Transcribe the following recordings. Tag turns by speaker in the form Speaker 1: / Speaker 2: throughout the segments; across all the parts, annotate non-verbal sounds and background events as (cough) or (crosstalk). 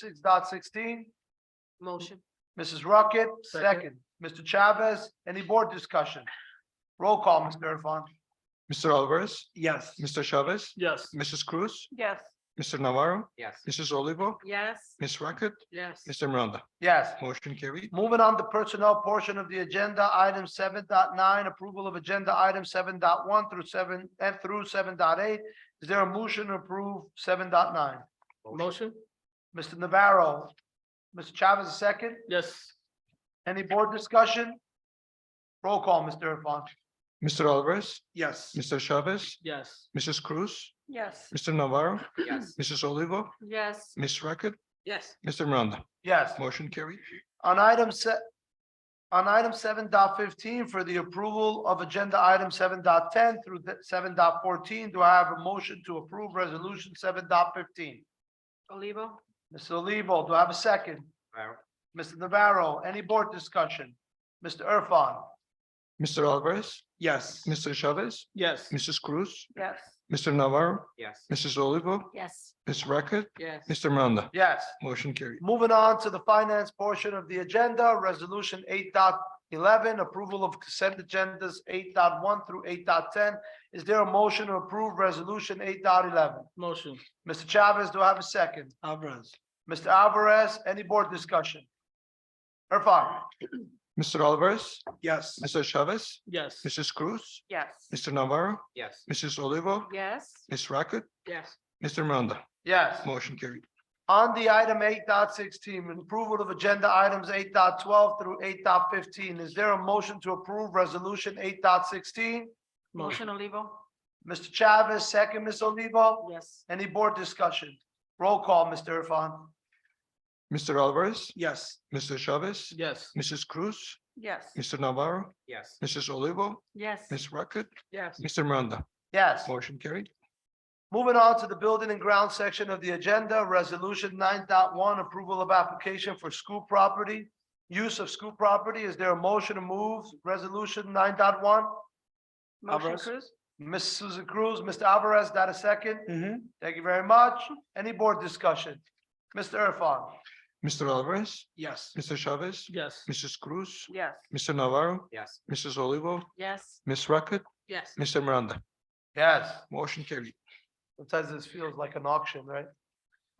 Speaker 1: six dot sixteen.
Speaker 2: Motion.
Speaker 1: Mrs. Rocket, second.
Speaker 2: Second.
Speaker 1: Mr. Chavez, any board discussion? Roll call, Mr. Irfan.
Speaker 3: Mr. Alvarez,
Speaker 1: Yes.
Speaker 3: Mr. Chavez,
Speaker 2: Yes.
Speaker 3: Mrs. Cruz,
Speaker 2: Yes.
Speaker 3: Mr. Navarro,
Speaker 4: yes,
Speaker 3: Mrs. Olivo,
Speaker 2: Yes.
Speaker 3: Ms. Rackett,
Speaker 2: Yes.
Speaker 3: Mr. Miranda.
Speaker 1: Yes.
Speaker 3: Motion carried.
Speaker 1: Moving on to personnel portion of the agenda, item seven dot nine, approval of agenda item seven dot one through seven and through seven dot eight. Is there a motion to approve seven dot nine?
Speaker 2: Motion.
Speaker 1: Mr. Navarro, Mr. Chavez, a second.
Speaker 2: Yes.
Speaker 1: Any board discussion? Roll call, Mr. Irfan.
Speaker 3: Mr. Alvarez,
Speaker 1: Yes.
Speaker 3: Mr. Chavez,
Speaker 2: Yes.
Speaker 3: Mrs. Cruz,
Speaker 2: Yes.
Speaker 3: Mr. Navarro,
Speaker 4: yes,
Speaker 3: Mrs. Olivo,
Speaker 2: Yes.
Speaker 3: Ms. Rackett,
Speaker 2: Yes.
Speaker 3: Mr. Miranda.
Speaker 1: Yes.
Speaker 3: Motion carried.
Speaker 1: On item se- on item seven dot fifteen for the approval of agenda item seven dot ten through seven dot fourteen, do I have a motion to approve resolution seven dot fifteen?
Speaker 2: Olivo.
Speaker 1: Mr. Olivo, do I have a second?
Speaker 4: Navarro,
Speaker 1: Mr. Navarro, any board discussion? Mr. Irfan?
Speaker 3: Mr. Alvarez,
Speaker 1: Yes.
Speaker 3: Mr. Chavez,
Speaker 2: Yes.
Speaker 3: Mrs. Cruz,
Speaker 2: Yes.
Speaker 3: Mr. Navarro,
Speaker 4: yes,
Speaker 3: Mrs. Olivo,
Speaker 2: Yes.
Speaker 3: Ms. Rackett,
Speaker 2: Yes.
Speaker 3: Mr. Miranda.
Speaker 1: Yes.
Speaker 3: Motion carried.
Speaker 1: Moving on to the finance portion of the agenda, resolution 8.11, approval of consent agendas 8.1 through 8.10. Is there a motion to approve resolution 8.11?
Speaker 2: Motion.
Speaker 1: Mr. Chavez, do I have a second?
Speaker 2: Alvarez.
Speaker 1: Mr. Alvarez, any board discussion? Irfan?
Speaker 3: Mr. Alvarez,
Speaker 1: Yes.
Speaker 3: Mr. Chavez,
Speaker 2: Yes.
Speaker 3: Mrs. Cruz,
Speaker 2: Yes.
Speaker 3: Mr. Navarro,
Speaker 4: yes,
Speaker 3: Mrs. Olivo,
Speaker 2: Yes.
Speaker 3: Ms. Rackett,
Speaker 2: Yes.
Speaker 3: Mr. Miranda.
Speaker 1: Yes.
Speaker 3: Motion carried.
Speaker 1: On the item 8.16, approval of agenda items 8.12 through 8.15. is there a motion to approve resolution 8.16?
Speaker 2: Motion Olivo.
Speaker 1: Mr. Chavez, second, Ms. Olivo?
Speaker 2: Yes.
Speaker 1: Any board discussion? Roll call, Mr. Irfan.
Speaker 3: Mr. Alvarez,
Speaker 1: Yes.
Speaker 3: Mr. Chavez,
Speaker 2: Yes.
Speaker 3: Mrs. Cruz,
Speaker 2: Yes.
Speaker 3: Mr. Navarro,
Speaker 4: yes,
Speaker 3: Mrs. Olivo,
Speaker 2: Yes.
Speaker 3: Ms. Rackett,
Speaker 2: Yes.
Speaker 3: Mr. Miranda.
Speaker 1: Yes.
Speaker 3: Motion carried.
Speaker 1: Moving on to the building and ground section of the agenda, resolution 9.1, approval of application for school property. Use of school property, is there a motion to move resolution 9.1?
Speaker 2: Motion
Speaker 1: Alvarez.
Speaker 2: Cruz.
Speaker 1: Ms. Susan Cruz, Mr. Alvarez, that a 2nd Thank you very much. Any board discussion? Mr. Irfan?
Speaker 3: Mr. Alvarez,
Speaker 1: Yes.
Speaker 3: Mr. Chavez,
Speaker 2: Yes.
Speaker 3: Mrs. Cruz,
Speaker 2: Yes.
Speaker 3: Mr. Navarro,
Speaker 4: yes,
Speaker 3: Mrs. Olivo,
Speaker 2: Yes.
Speaker 3: Ms. Rackett,
Speaker 2: Yes.
Speaker 3: Mr. Miranda.
Speaker 1: Yes.
Speaker 3: Motion carried.
Speaker 1: Sometimes this feels like an auction, right?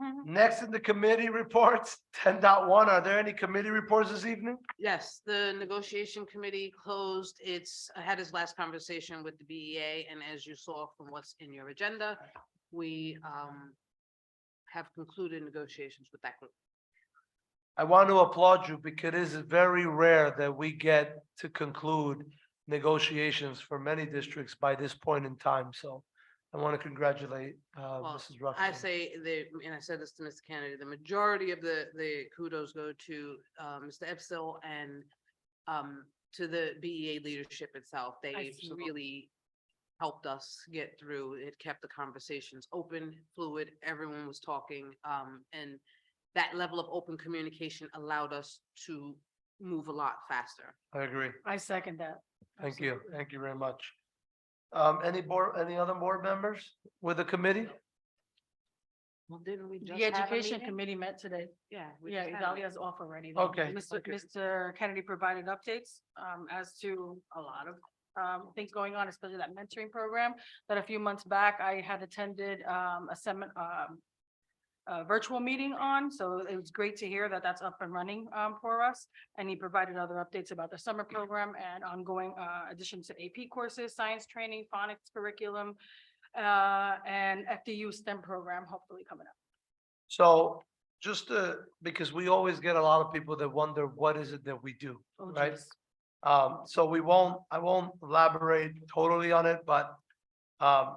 Speaker 2: Mhm.
Speaker 1: Next in the committee reports, (laughs) 10.1. are there any committee reports this evening?
Speaker 5: Yes, the negotiation committee closed its, had its last conversation with the BEA, and as you saw from what's in your agenda, we um have concluded negotiations with that group.
Speaker 1: I want to applaud you because it is very rare that we get to conclude negotiations for many districts by this point in time, so I want to congratulate, uh,
Speaker 5: Well,
Speaker 1: Mrs. Ruffin.
Speaker 5: I say the, and I said this to Mr. Kennedy, the majority of the the kudos go to uh Mr. Epstein and um to the BEA leadership itself. They
Speaker 2: Absolutely.
Speaker 5: really helped us get through. It kept the conversations open, fluid, everyone was talking. Um, and that level of open communication allowed us to move a lot faster.
Speaker 1: I agree.
Speaker 2: I second that.
Speaker 1: Thank you. Thank you very much. Um, any board, any other board members with the committee?
Speaker 5: Well, didn't we just
Speaker 2: The education committee met today.
Speaker 5: Yeah. we
Speaker 2: Yeah,
Speaker 5: just had a meeting.
Speaker 2: Idalia's off already. though.
Speaker 1: Okay.
Speaker 2: Mr.
Speaker 5: Okay.
Speaker 2: Mr. Kennedy provided updates um as to a lot of um things going on, especially that mentoring program that a few months back I had attended um a seminar um a virtual meeting on, so it was great to hear that that's up and running um for us. And he provided other updates about the summer program and ongoing uh additions to AP courses, science training, phonics curriculum, uh and FDU STEM program hopefully coming up.
Speaker 1: So just uh because we always get a lot of people that wonder, what is it that we do?
Speaker 2: Oh,
Speaker 1: Right.
Speaker 2: geez.
Speaker 1: Um, so we won't, I won't elaborate totally on it, but um,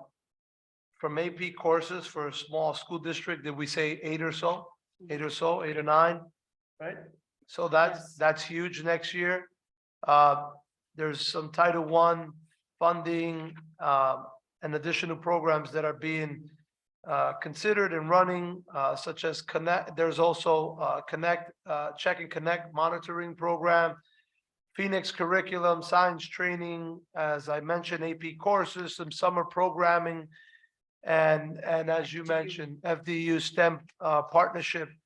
Speaker 1: from AP courses for a small school district, did we say eight or so? Eight or so, eight or nine, right? So that's,
Speaker 2: Yes.
Speaker 1: that's huge next year. Uh, there's some Title One funding, uh, and additional programs that are being uh, considered and running, uh, such as Connect, there's also, uh, Connect, uh, Check and Connect Monitoring Program, Phoenix curriculum, science training, as I mentioned, AP courses, some summer programming. And, and as you mentioned, FDU STEM, uh, partnership